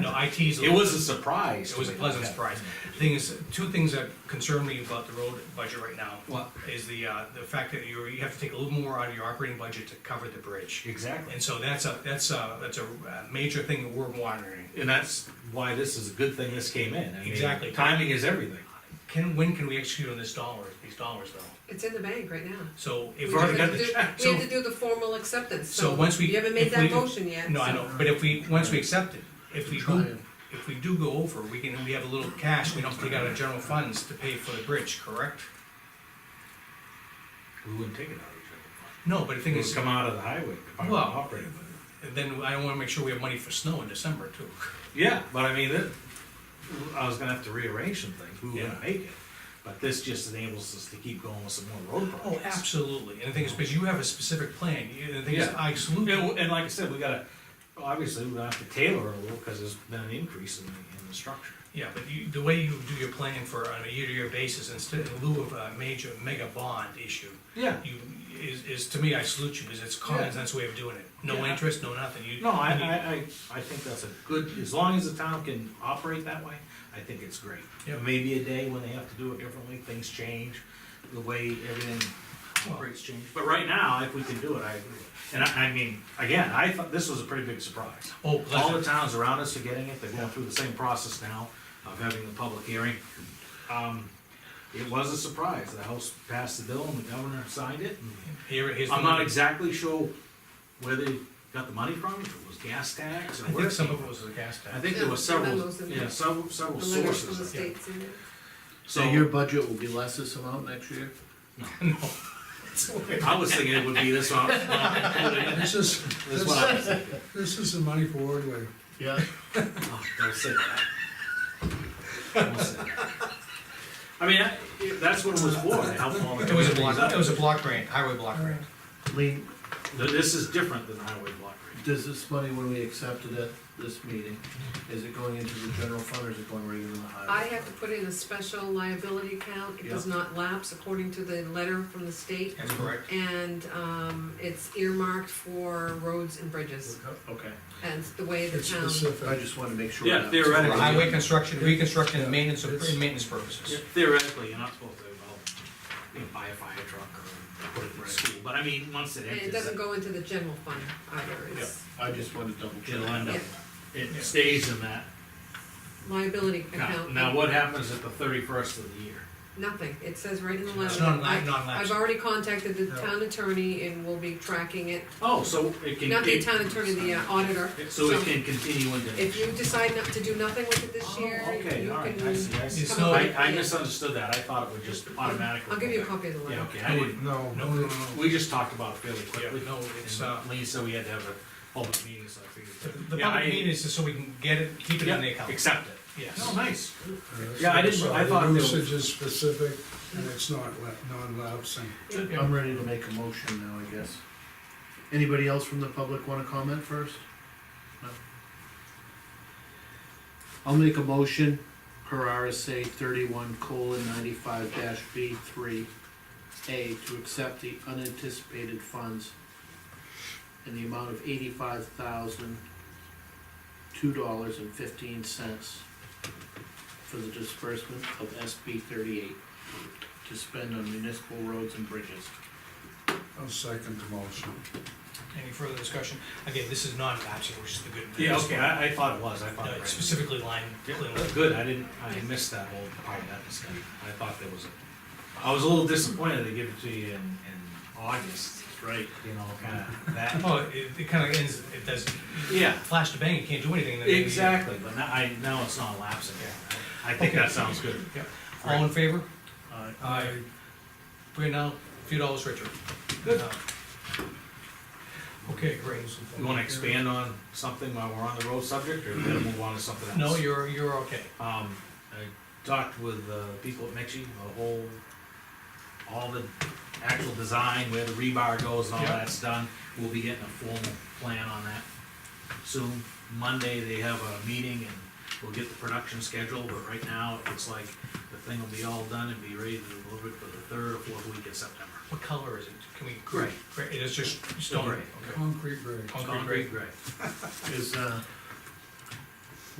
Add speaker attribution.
Speaker 1: No, IT's.
Speaker 2: It was a surprise.
Speaker 1: It
Speaker 2: to
Speaker 1: was a
Speaker 2: me.
Speaker 1: pleasant surprise. Thing is, two things that concern me about the road budget right now.
Speaker 2: What?
Speaker 1: Is the, uh, the fact that you, you have to take a little more out of your operating budget to cover the bridge.
Speaker 2: Exactly.
Speaker 1: And so that's a, that's a, that's a uh, major thing that we're monitoring.
Speaker 2: And that's why this is a good thing this came in. I mean,
Speaker 1: Exactly.
Speaker 2: Timing is everything.
Speaker 1: Can, when can we execute on this dollar, these dollars though?
Speaker 3: It's in the bank right now.
Speaker 1: So if.
Speaker 3: We
Speaker 2: You've already
Speaker 3: have
Speaker 2: got
Speaker 3: to
Speaker 2: the
Speaker 3: do-
Speaker 2: check,
Speaker 3: We have
Speaker 1: so-
Speaker 3: to do the formal acceptance,
Speaker 1: So
Speaker 3: so
Speaker 1: once we.
Speaker 3: you haven't
Speaker 1: if
Speaker 3: made that
Speaker 1: we-
Speaker 3: motion yet.
Speaker 1: No, I
Speaker 3: so-
Speaker 1: know, but if we, once we accept it, if we do, if we do go over, we can, we have a little cash, we don't take out our general funds to pay for the bridge, correct?
Speaker 2: We wouldn't take it out of
Speaker 1: No, but the
Speaker 2: each other.
Speaker 1: thing
Speaker 2: It would
Speaker 1: is,
Speaker 2: come out of the highway
Speaker 1: Well-
Speaker 2: department operating budget.
Speaker 1: then I wanna make sure we have money for snow in December too.
Speaker 2: Yeah, but I mean, it, I was gonna have to rearrange some things. We were
Speaker 1: Yeah.
Speaker 2: gonna make it. But this just enables us to keep going with some more road
Speaker 1: Oh,
Speaker 2: projects.
Speaker 1: absolutely, and the thing is, because you have a specific plan, You- the thing is,
Speaker 2: Yeah.
Speaker 1: I salute
Speaker 2: Yeah,
Speaker 1: you.
Speaker 2: well, And like I said, we gotta, obviously, we're gonna have to tailor it a little, cause there's been an increase in, the- in the structure.
Speaker 1: Yeah, but you, the way you do your plan for on a year-to-year basis instead, in lieu of a major mega bond issue,
Speaker 2: Yeah.
Speaker 1: you, is, is, to me, I salute you, because it's common
Speaker 2: Yeah.
Speaker 1: sense way of doing it. No
Speaker 2: Yeah.
Speaker 1: interest, no nothing, you.
Speaker 2: No, I,
Speaker 1: you-
Speaker 2: I, I, I think that's a good, as long as the town can operate that way, I think it's great.
Speaker 1: Yeah.
Speaker 2: Maybe a day when they have to do it differently, things change, the way everything operates change. But right now, if we can do it, I agree. And I, I mean, again, I thought this was a pretty big surprise.
Speaker 1: Oh,
Speaker 2: All the
Speaker 1: pleasant,
Speaker 2: towns around us are getting it, they're going through the same process now of having the public hearing. Um, It was a surprise, the House passed the bill and the governor signed it, and
Speaker 1: here, here's. the
Speaker 2: I'm not
Speaker 1: money.
Speaker 2: exactly sure where they got the money from, if it was gas tax or
Speaker 1: I
Speaker 2: where.
Speaker 1: think some of it was the gas
Speaker 2: I
Speaker 1: tax.
Speaker 2: think there were
Speaker 3: Yeah,
Speaker 2: several,
Speaker 3: memos in there.
Speaker 2: yeah, several, several
Speaker 3: The letters from the
Speaker 2: sources.
Speaker 3: states in it.
Speaker 4: So your budget will be less this amount next year?
Speaker 1: No,
Speaker 2: I was thinking it would be this one.
Speaker 5: This is,
Speaker 2: That's what I was thinking.
Speaker 5: this is the money for Ordway.
Speaker 4: Yeah.
Speaker 2: Oh, Don't say that. Don't say that. I mean, I- that's what it was for, to help all the.
Speaker 1: it was a block, it
Speaker 2: communities
Speaker 1: was a block grant, highway block grant.
Speaker 4: Lean,
Speaker 2: out. This is different than highway block grant.
Speaker 4: does this money, when we accept it at this meeting, is it going into the general fund or is it going right into the highway?
Speaker 3: I have to put in a special liability account, it does not lapse according to the letter from the state.
Speaker 1: That's correct.
Speaker 3: And, um, it's earmarked for roads and bridges,
Speaker 4: Okay,
Speaker 3: and it's the way the
Speaker 5: It's
Speaker 3: town.
Speaker 4: I
Speaker 5: specific.
Speaker 4: just wanted to make sure.
Speaker 2: Yeah,
Speaker 4: that-
Speaker 1: For
Speaker 2: theoretically.
Speaker 1: highway construction, reconstruction, and maintenance, of- and maintenance purposes.
Speaker 2: Theoretically, you're not supposed to, well, you know, buy a fire truck or put it in school, but I mean, once it
Speaker 3: And
Speaker 2: enters.
Speaker 3: it doesn't go into the general fund either, it's
Speaker 4: I just wanted to double check.
Speaker 2: It'll end up, it
Speaker 1: Yeah.
Speaker 2: stays in that.
Speaker 3: liability
Speaker 2: Now,
Speaker 3: account.
Speaker 2: now what happens at the thirty-first of the year?
Speaker 3: Nothing, it says right in the letter.
Speaker 1: It's non,
Speaker 3: I- I've
Speaker 1: non-lapsing.
Speaker 3: already contacted the
Speaker 5: No.
Speaker 3: town attorney and we'll be tracking it,
Speaker 2: Oh, so it can.
Speaker 3: not the
Speaker 2: it-
Speaker 3: town attorney, the uh, auditor.
Speaker 2: So it can continue into.
Speaker 3: If you decide not to do nothing with it this
Speaker 2: Oh,
Speaker 3: year, you
Speaker 2: Okay, all right, I
Speaker 3: can.
Speaker 2: see, I see.
Speaker 1: It's
Speaker 3: come
Speaker 1: not-
Speaker 3: up
Speaker 2: I,
Speaker 3: with-
Speaker 2: I
Speaker 3: yeah.
Speaker 2: misunderstood that, I thought it would just automatically.
Speaker 3: I'll give you a copy of the
Speaker 2: Yeah,
Speaker 3: letter.
Speaker 2: okay, I didn't,
Speaker 5: No, uh,
Speaker 1: No,
Speaker 5: no,
Speaker 1: no,
Speaker 5: no,
Speaker 1: no.
Speaker 2: we just talked about it fairly
Speaker 1: Yeah,
Speaker 2: quickly.
Speaker 1: no, it's, uh,
Speaker 2: And Lee said we had to have a public meeting, so
Speaker 1: The
Speaker 2: I figured.
Speaker 1: the
Speaker 2: Yeah,
Speaker 1: public
Speaker 2: I-
Speaker 1: meeting is just so we can get it, keep it in the
Speaker 2: yeah,
Speaker 1: account.
Speaker 2: Accept it.
Speaker 1: Yes.
Speaker 2: Oh, nice.
Speaker 5: no.
Speaker 2: Yeah, I didn't- I thought
Speaker 5: The
Speaker 2: there was-
Speaker 5: Usage is specific and it's not la- non-lapsing.
Speaker 4: I'm ready to make a motion now, I guess. Anybody else from the public wanna comment first? No. I'll make a motion per RSA thirty-one colon ninety-five dash B three A to accept the unanticipated funds in the amount of eighty-five thousand, two dollars and fifteen cents for the disbursement of SB thirty-eight to spend on municipal roads and bridges.
Speaker 5: I'll second the motion.
Speaker 1: Any further discussion? Again, this is non-lapsing, which is the good.
Speaker 2: Yeah, okay, I, I thought it was, I thought.
Speaker 1: No,
Speaker 2: it
Speaker 1: it's
Speaker 2: was.
Speaker 1: Specifically line,
Speaker 2: Yeah,
Speaker 1: clean.
Speaker 2: that's Good, I didn't, I missed that whole part of that discussion, I thought there was a, I was a little disappointed they give it to you in, in August,
Speaker 4: Right.
Speaker 2: you know, kinda that.
Speaker 1: Oh, it, it kinda ends, it does,
Speaker 2: Yeah,
Speaker 1: flash to bang, you can't do anything. in the beginning.
Speaker 2: exactly, but now, I, now it's not lapsing, I think that sounds good.
Speaker 1: Yeah. All in favor?
Speaker 4: Uh,
Speaker 1: Aye. We're now a few dollars richer.
Speaker 2: Good.
Speaker 1: Uh, Okay, great.
Speaker 2: You wanna expand on something while we're on the road subject, or we gotta move on to something else?
Speaker 1: No, you're, you're okay.
Speaker 2: Um, I talked with, uh, people at Mechie, the whole, all the actual design, where the rebar goes and all
Speaker 1: Yeah.
Speaker 2: that's done. We'll be getting a formal plan on that soon. Monday, they have a meeting and we'll get the production schedule, but right now, it looks like the thing will be all done and be ready to deliver it for the third or fourth week of September.
Speaker 1: What color is it? Can we?
Speaker 2: Gray.
Speaker 1: It is just stone.
Speaker 2: Gray.
Speaker 1: Okay.
Speaker 5: Concrete grade.
Speaker 1: Concrete gray.
Speaker 2: gray.
Speaker 4: Is, uh,